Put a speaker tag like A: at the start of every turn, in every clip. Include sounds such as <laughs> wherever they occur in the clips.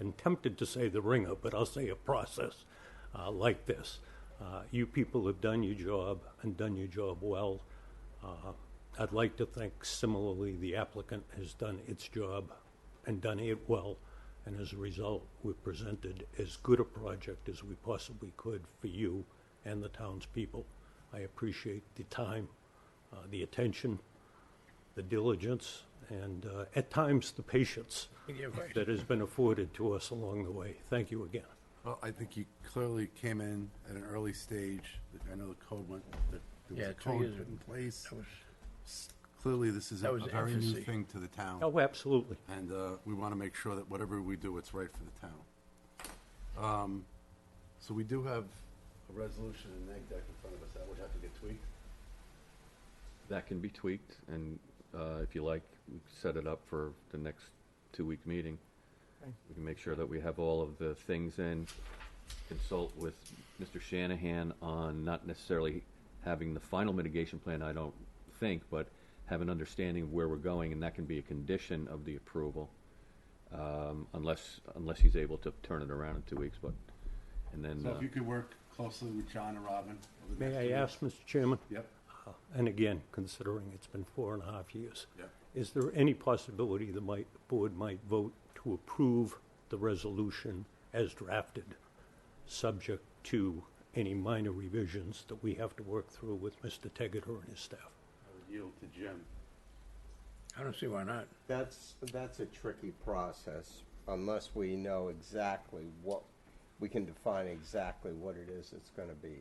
A: I'm tempted to say the ringer, but I'll say a process uh, like this. Uh, You people have done your job and done your job well. Uh, I'd like to think similarly, the applicant has done its job and done it well, and as a result, we've presented as good a project as we possibly could for you and the townspeople. I appreciate the time, uh, the attention, the diligence, and uh, at times, the patience
B: You're right.
A: that has been afforded to us along the way. Thank you again.
C: Well, I think you clearly came in at an early stage. I know the code went, that there
B: Yeah,
C: was a
B: two years
C: code put
B: ago.
C: in place.
B: That was,
C: S- Clearly, this is a
B: that was
C: a very new
B: infancy.
C: thing to the town,
A: Oh, absolutely.
C: and uh, we want to make sure that whatever we do, it's right for the town. Um, So we do have a resolution in neg deck in front of us. That would have to get tweaked.
D: That can be tweaked, and uh, if you like, we can set it up for the next two-week meeting. We can make sure that we have all of the things in, consult with Mr. Shanahan on not necessarily having the final mitigation plan, I don't think, but have an understanding of where we're going, and that can be a condition of the approval, um, unless, unless he's able to turn it around in two weeks, but, and then,
C: So
D: uh,
C: if you could work closely with John and Robin. over the
A: May
C: next
A: I
C: few
A: ask, Mr. Chairman?
C: weeks. Yep.
A: Uh, And again, considering it's been four and a half years.
C: Yeah.
A: Is there any possibility the might, the board might vote to approve the resolution as drafted, subject to any minor revisions that we have to work through with Mr. Tegater and his staff?
C: I would yield to Jim.
B: I don't see why not.
E: That's, that's a tricky process unless we know exactly what, we can define exactly what it is that's gonna be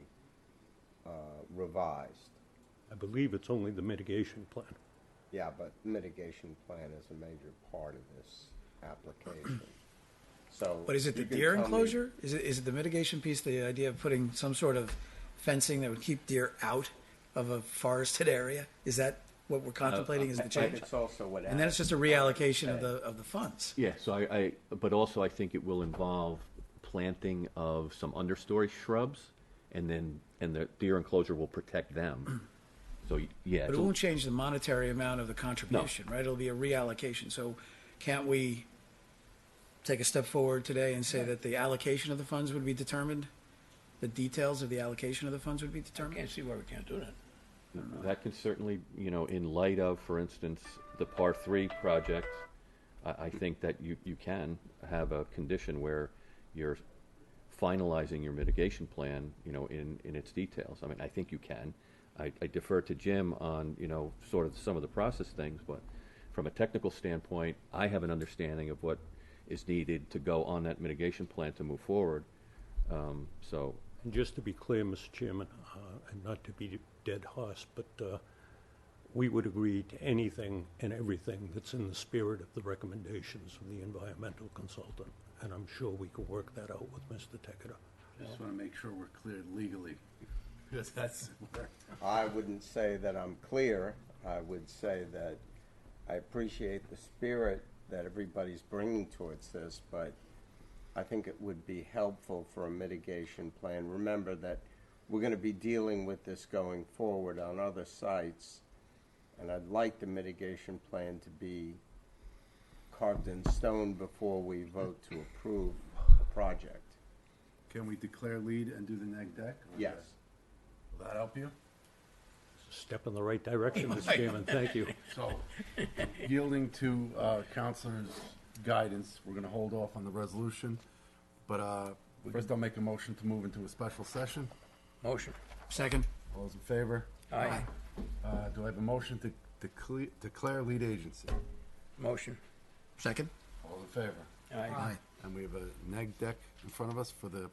E: uh, revised.
A: I believe it's only the mitigation plan.
E: Yeah, but mitigation plan is a major part of this application. So.
F: But is it the
E: you can
F: deer
E: tell me-
F: enclosure? Is it, is it the mitigation piece, the idea of putting some sort of fencing that would keep deer out of a forested area? Is that what we're contemplating is
E: Uh, I
F: the
E: think
F: change?
E: it's also what.
F: And then it's just a reallocation
E: Uh,
F: of the, of the funds.
D: Yeah, so I, I, but also I think it will involve planting of some understory shrubs, and then, and the deer enclosure will protect them. So, y- yeah.
F: But it
D: it's a-
F: won't change the monetary amount of the contribution, right? It'll be a reallocation. So can't we take a step forward today and say that the allocation of the funds would be determined? The details of the allocation of the funds would be
B: I
F: determined?
B: can't see why we can't do that.
D: That can certainly, you know, in light of, for instance, the par three project, I, I think that you, you can have a condition where you're finalizing your mitigation plan, you know, in, in its details. I mean, I think you can. I, I defer to Jim on, you know, sort of some of the process things, but from a technical standpoint, I have an understanding of what is needed to go on that mitigation plan to move forward. Um, so
A: And just to be clear, Mr. Chairman, uh, and not to be dead horse, but uh, we would agree to anything and everything that's in the spirit of the recommendations of the environmental consultant, and I'm sure we can work that out with Mr. Tekeeta.
C: Just want to make sure we're cleared legally. <laughs> Because that's where
E: I wouldn't say that I'm clear. I would say that I appreciate the spirit that everybody's bringing towards this, but I think it would be helpful for a mitigation plan. Remember that we're going to be dealing with this going forward on other sites, and I'd like the mitigation plan to be carved in stone before we vote to approve a project.
C: Can we declare lead and do the neg deck? Or
E: Yes.
C: Will that help you?
A: It's a Step in the right direction, Mr. Chairman, thank you.
C: So yielding to uh, counselor's guidance, we're going to hold off on the resolution. But uh, first, I'll make a motion to move into a special session.
B: Motion.
F: Second?
C: All those in favor?
B: Aye.
C: Uh, Do I have a motion to decle- declare lead agency?
B: Motion.
F: Second?
C: All in favor?
B: Aye.
C: And we have a neg deck in front of us for the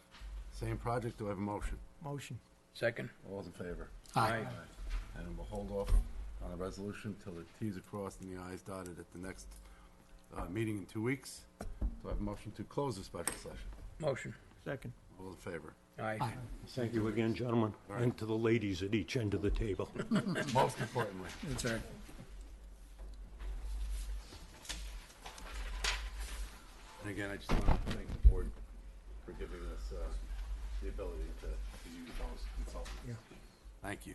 C: same project. Do I have a motion?
F: Motion.
B: Second.
C: All those in favor?
B: Aye.
C: And we'll hold off on the resolution till the Ts are crossed and the Is dotted at the next uh, meeting in two weeks. Do I have a motion to close the special session?
B: Motion.
F: Second.
C: All in favor?
B: Aye.
A: Thank you again, gentlemen, and to the ladies at each end of the table.
C: Most importantly.
F: That's right.
C: And again, I just want to thank the board for giving us uh, the ability to to use those consultants. Thank you.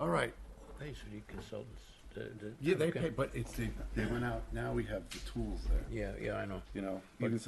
C: All right,
B: They should be consultants. Yeah, they pay, but it's, they, they went out, now we have the tools there,
C: Yeah, yeah, I know.
B: you know? Even some